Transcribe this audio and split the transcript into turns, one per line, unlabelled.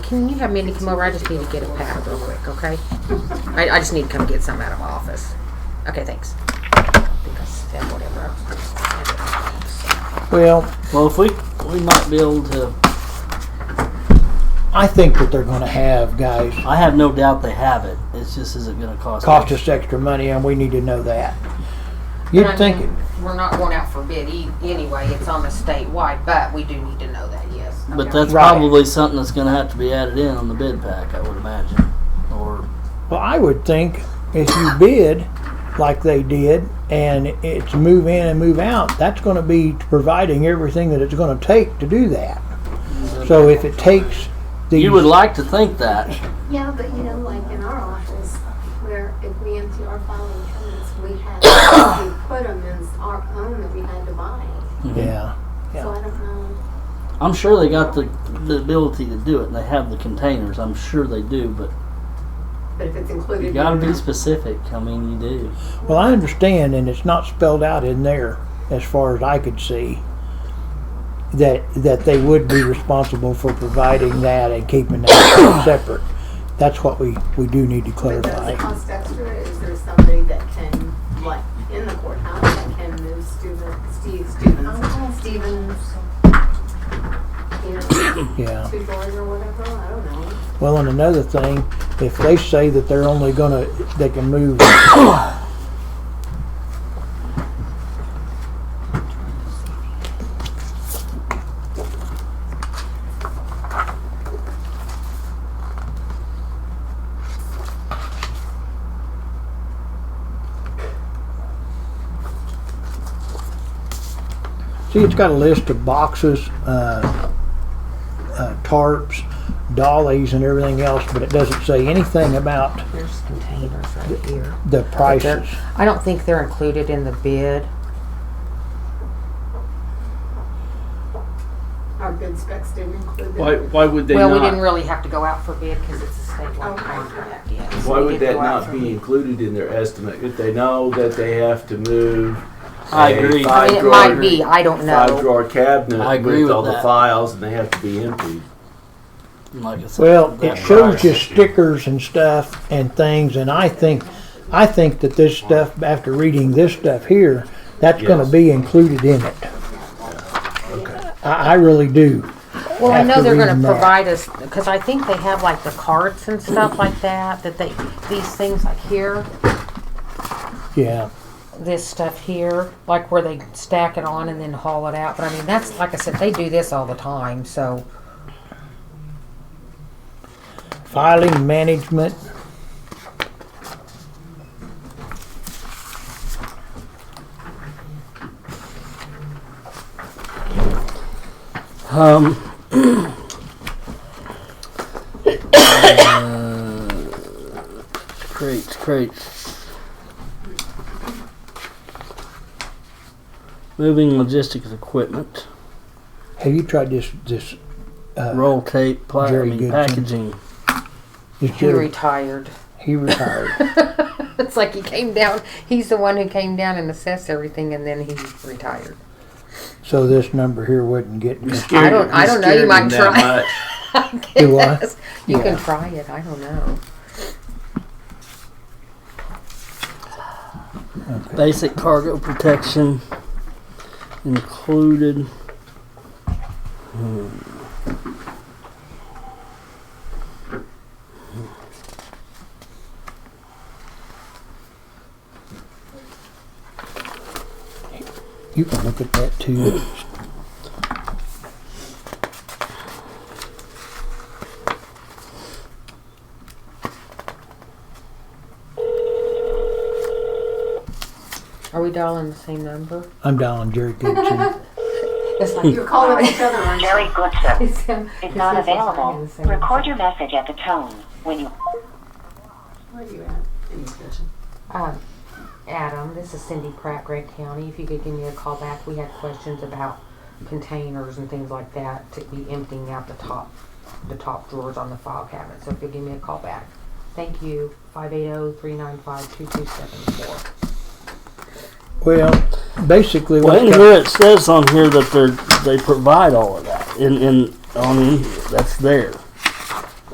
Can you have Mindy come over? I just need to get a pad real quick, okay? I, I just need to come get some out of my office. Okay, thanks. I think I said whatever. I-
Well,
Well, if we, we might be able to,
I think that they're going to have guys
I have no doubt they have it. It's just, is it gonna cost?
cost us extra money, and we need to know that.
And I
You'd
mean,
think it.
We're not going out for bid e- anyway. It's on a statewide, but we do need to know that, yes.
But
Okay.
that's
Right.
probably something that's gonna have to be added in on the bid pack, I would imagine, or,
Well, I would think if you bid like they did and it's move in and move out, that's going to be providing everything that it's going to take to do that. So if it takes these,
you would like to think that.
Yeah, but you know, like in our office, where if we empty our filing cabinets, we had, to put them in our own that we had to buy.
yeah,
So I don't know.
I'm sure they got the, the ability to do it, and they have the containers, I'm sure they do, but
But if it's included.
you gotta be specific, I mean, you do.
well, I understand, and it's not spelled out in there as far as I could see that that they would be responsible for providing that and keeping that separate. That's what we we do need to
But does it
clarify.
cost extra? Is there somebody that can, like, in the courthouse that can move Steven, Steve Stevens? Stevens. You know,
Yeah.
two doors or whatever, I don't know.
Well, and another thing, if they say that they're only gonna, they can move, see, it's got a list of boxes, uh, uh, tarps, dollies, and everything else, but it doesn't say anything about
There's containers right here.
the prices.
I don't think they're included in the bid.
Our bid specs didn't include
Why,
that.
why would they
Well, we
not?
didn't really have to go out for bid because it's a statewide
Okay.
contract, yes.
why
We
would
did
that
go out
not
for
be
bid.
included in their estimate if they know that they have to move?
I
a
agree.
I mean, it
five-drawer-
might be, I don't
Five
know.
drawer cabinet
I agree
with
with
all the
that.
files, and they have to be emptied.
Like I said,
Well, it
that-
shows you stickers and stuff and things, and I think, I think that this stuff, after reading this stuff here, that's gonna
Yes.
be included in it. I, I really do.
Well, I know
after
they're gonna
reading that.
provide us, because I think they have like the carts and stuff like that, that they, these things like here,
Yeah,
this stuff here, like where they stack it on and then haul it out. But I mean, that's, like I said, they do this all the time, so.
filing management,
Um. uh, crates, crates. Moving logistics equipment,
have you tried this, this, uh,
roll tape, pla- I
Jerry
mean,
Goodson.
packaging.
this
He
Jerry,
retired.
he retired.
It's like he came down, he's the one who came down and assessed everything and then he retired.
So this number here wouldn't get,
I don't- I don't know, you might try.
Do I?
Yes. You
Yeah.
can try it, I don't know.
Basic cargo protection included.
you can look at that too.
Are we dialing the same number?
I'm dialing Jerry Gibson.
It's like
You're calling each other, aren't you?
Very good, sir.
It's, um,
Is not
it's- it's-
available.
it's-
Record your message at the tone. When you
Where are you at? In the kitchen.
Um, Adam, this is Cindy Pratt, Gregg County. If you could give me a call back, we had questions about containers and things like that to be emptying out the top, the top drawers on the file cabinet. So if you'll give me a call back. Thank you, five eight oh three nine five two two seven four.
Well, basically
Well,
what.
in here it says on here that they they provide all of that in in on in that's there.